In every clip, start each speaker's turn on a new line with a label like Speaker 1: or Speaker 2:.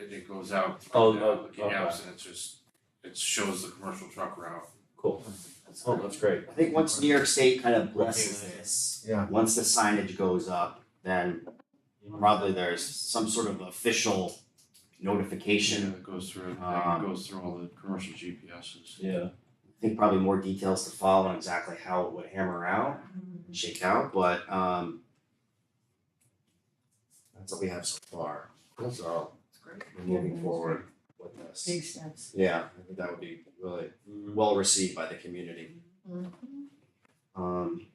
Speaker 1: and it goes out.
Speaker 2: Oh,
Speaker 1: through
Speaker 2: oh,
Speaker 1: the Canals
Speaker 2: okay.
Speaker 1: and it's just, it shows the commercial truck route.
Speaker 2: Cool. Oh, that's great.
Speaker 3: I think once New York State kind of blesses
Speaker 2: Looking at it.
Speaker 3: this,
Speaker 4: Yeah.
Speaker 3: once the signage goes up, then probably there's some sort of official notification.
Speaker 1: Yeah, it goes through, everything. it
Speaker 2: Ah.
Speaker 3: Um,
Speaker 1: goes through all the commercial GPSs.
Speaker 2: Yeah.
Speaker 3: I think probably more details to follow on exactly how it would hammer out, and shake out, but um that's what we have so far. So we're moving forward with this.
Speaker 5: Big steps.
Speaker 3: Yeah, I think that would be really well received by the community.
Speaker 5: Mm-hmm.
Speaker 3: Um,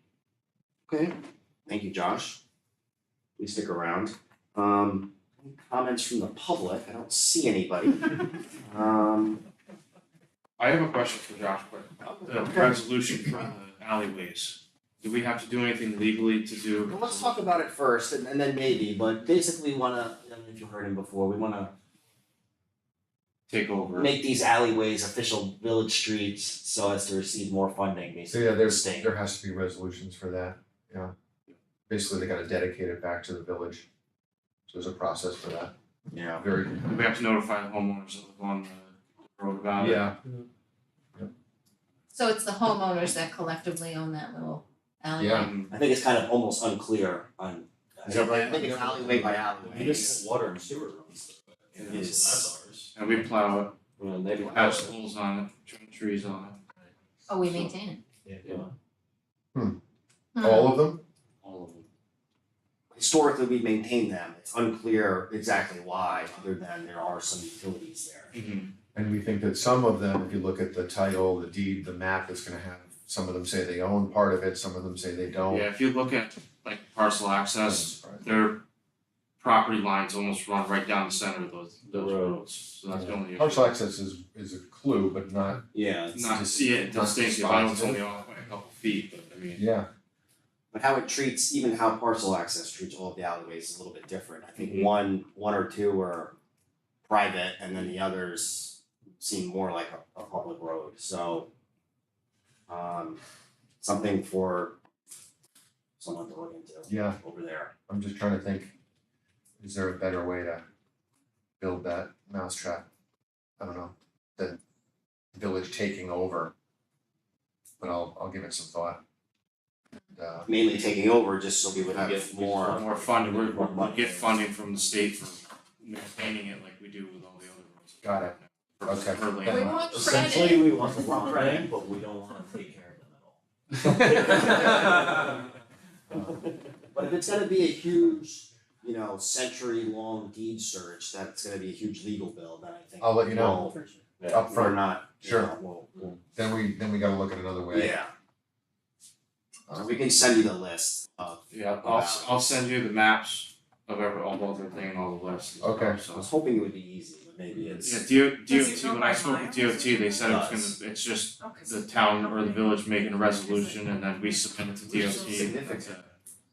Speaker 3: okay, thank you, Josh. Please stick around. Um, any comments from the public? I don't see anybody. Um,
Speaker 1: I have a question for Josh, but the resolution for the alleyways, do we have to do anything legally to do?
Speaker 3: well, let's talk about it first and, and then maybe, but basically wanna, I don't know if you heard him before, we wanna
Speaker 1: Take over,
Speaker 3: make these alleyways official village streets so as to receive more funding,
Speaker 4: So
Speaker 3: basically.
Speaker 4: yeah, there's,
Speaker 3: State.
Speaker 4: there has to be resolutions for that, yeah. Basically, they gotta dedicate it back to the village. So there's a process for that,
Speaker 3: Yeah.
Speaker 4: very,
Speaker 1: Do we have to notify the homeowners that live on the road about it.
Speaker 4: yeah,
Speaker 5: So it's the homeowners that collectively own that little alleyway.
Speaker 4: Yeah.
Speaker 1: Um,
Speaker 3: I think it's kind of almost unclear on.
Speaker 4: Is that right?
Speaker 3: I think it's alleyway by alleyway.
Speaker 2: water and sewer runs
Speaker 3: It is.
Speaker 2: ours.
Speaker 1: and we plow it,
Speaker 2: And they
Speaker 1: we have schools on it, trim trees on it.
Speaker 5: Oh, we maintain it.
Speaker 2: Yeah.
Speaker 5: Hmm.
Speaker 4: all of them,
Speaker 1: all of them.
Speaker 3: historically we maintain them, it's unclear exactly why, other than there are some utilities there.
Speaker 2: Mm-hmm.
Speaker 4: and we think that some of them, if you look at the title, the deed, the map, it's gonna have, some of them say they own part of it, some of them say they don't.
Speaker 1: Yeah, if you look at like parcel access, their property lines almost run right down the center of those those
Speaker 2: Road.
Speaker 1: roads, so that's the only issue.
Speaker 4: Partial access is, is a clue, but not,
Speaker 3: Yeah.
Speaker 1: Not,
Speaker 4: Just-
Speaker 1: yeah,
Speaker 4: not
Speaker 1: distinctive, I know it's
Speaker 4: dispositive.
Speaker 1: only off by a couple feet, but I mean,
Speaker 4: yeah,
Speaker 3: But how it treats, even how parcel access treats all of the alleyways is a little bit different, I think one, one or two are private, and then the others seem more like a, a public road, so. Um, something for someone to look into
Speaker 4: yeah,
Speaker 3: over there.
Speaker 4: I'm just trying to think, is there a better way to build that mousetrap? I don't know, the village taking over, but I'll, I'll give it some thought. Uh,
Speaker 3: Mainly taking over just so we would
Speaker 2: Yeah.
Speaker 3: have more.
Speaker 1: more funding, we
Speaker 3: More
Speaker 1: we
Speaker 3: money.
Speaker 1: get funding from the state for maintaining it like we do with all the other roads.
Speaker 4: Got it.
Speaker 1: For-
Speaker 4: Okay.
Speaker 1: for land.
Speaker 5: Hmm. We want
Speaker 6: Essentially,
Speaker 5: credit.
Speaker 6: we want the wrong thing, but we don't wanna take care of them at all.
Speaker 3: But if it's gonna be a huge, you know, century-long deed search, that's gonna be a huge legal bill, then I think.
Speaker 4: I'll let you know.
Speaker 3: we'll-
Speaker 4: Up
Speaker 3: We're
Speaker 4: front.
Speaker 3: not, you
Speaker 4: Sure.
Speaker 3: know, we'll- we'll-
Speaker 4: then we, then we gotta look at another way.
Speaker 3: yeah,
Speaker 4: Uh,
Speaker 3: we can send you the list of,
Speaker 1: Yeah, I'll s- I'll send you the maps of every, all of everything and all the lists. and
Speaker 4: Okay.
Speaker 3: I
Speaker 1: stuff,
Speaker 3: was
Speaker 1: so.
Speaker 3: hoping it would be easy, but maybe
Speaker 4: Mm-hmm.
Speaker 3: it's.
Speaker 1: Yeah, DO,
Speaker 7: Does it
Speaker 1: DOT,
Speaker 7: go
Speaker 1: when I
Speaker 7: by
Speaker 1: spoke with
Speaker 7: miles?
Speaker 1: DOT, they said it was
Speaker 3: Does.
Speaker 1: gonna, it's just
Speaker 7: Okay,
Speaker 1: the town or the village making a resolution and then we submit it to DOT.
Speaker 3: Significant.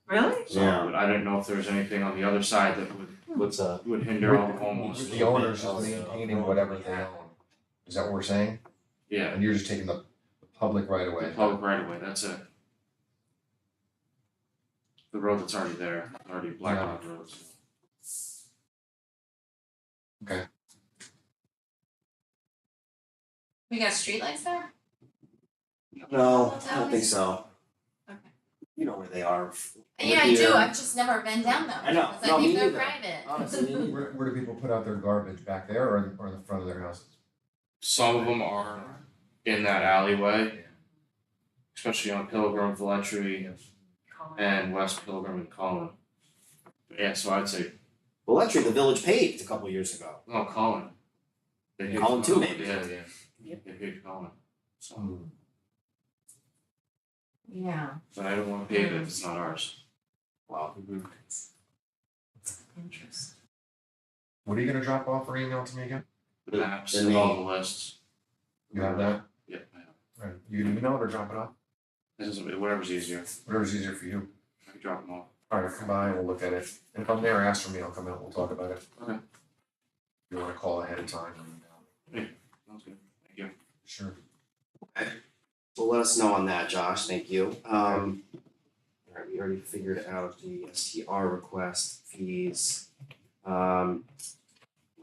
Speaker 7: really?
Speaker 1: So,
Speaker 3: Yeah.
Speaker 1: but I didn't know if there was anything on the other side that would,
Speaker 2: What's
Speaker 6: uh,
Speaker 2: up?
Speaker 1: would hinder all the homeowners.
Speaker 4: The owners is maintaining whatever they own, is that what we're saying?
Speaker 1: Yeah,
Speaker 4: And you're just taking the the public right away.
Speaker 1: the public right away. that's it. The road that's already there, already blacktop roads.
Speaker 5: We got streetlights there?
Speaker 3: No, I don't think so.
Speaker 5: Okay.
Speaker 3: You know where they are,
Speaker 5: Yeah, I do,
Speaker 3: Yeah.
Speaker 5: I've just never been down them.
Speaker 3: I know.
Speaker 5: Because
Speaker 3: No,
Speaker 5: I think
Speaker 3: me
Speaker 5: they're
Speaker 3: neither.
Speaker 5: private.
Speaker 3: honestly, me neither.
Speaker 4: Where, where do people put out their garbage, back there or in, or in the front of their houses?
Speaker 1: Some of them are in that alleyway, especially on Pilgrim, Valtry, and West Pilgrim and Collin. Yeah, so I'd say,
Speaker 3: well, actually, the village paved a couple years ago,
Speaker 1: no, Collin. Oh, They hit
Speaker 3: Collin too, maybe.
Speaker 1: Yeah, yeah, they hit Collin, so.
Speaker 5: Yeah,
Speaker 1: But I don't wanna pay it if it's not ours.
Speaker 3: wow.
Speaker 5: interesting.
Speaker 4: What are you gonna drop off or email to me again?
Speaker 1: The maps
Speaker 3: the
Speaker 1: and all the
Speaker 3: name.
Speaker 1: lists,
Speaker 4: You have that?
Speaker 1: yeah, I know.
Speaker 4: Right, you can email it or drop it off,
Speaker 1: This is, whatever's easier,
Speaker 4: whatever's easier for you.
Speaker 1: I can drop them off.
Speaker 4: Alright, come by, we'll look at it, and if I'm there, ask for me, I'll come out, we'll talk about it.
Speaker 1: Okay.
Speaker 4: If you wanna call ahead of time, or email.
Speaker 1: Sounds good, thank you.
Speaker 4: sure.
Speaker 3: So let us know on that, Josh, thank you. Um, alright, we already figured out the STR request fees. Um,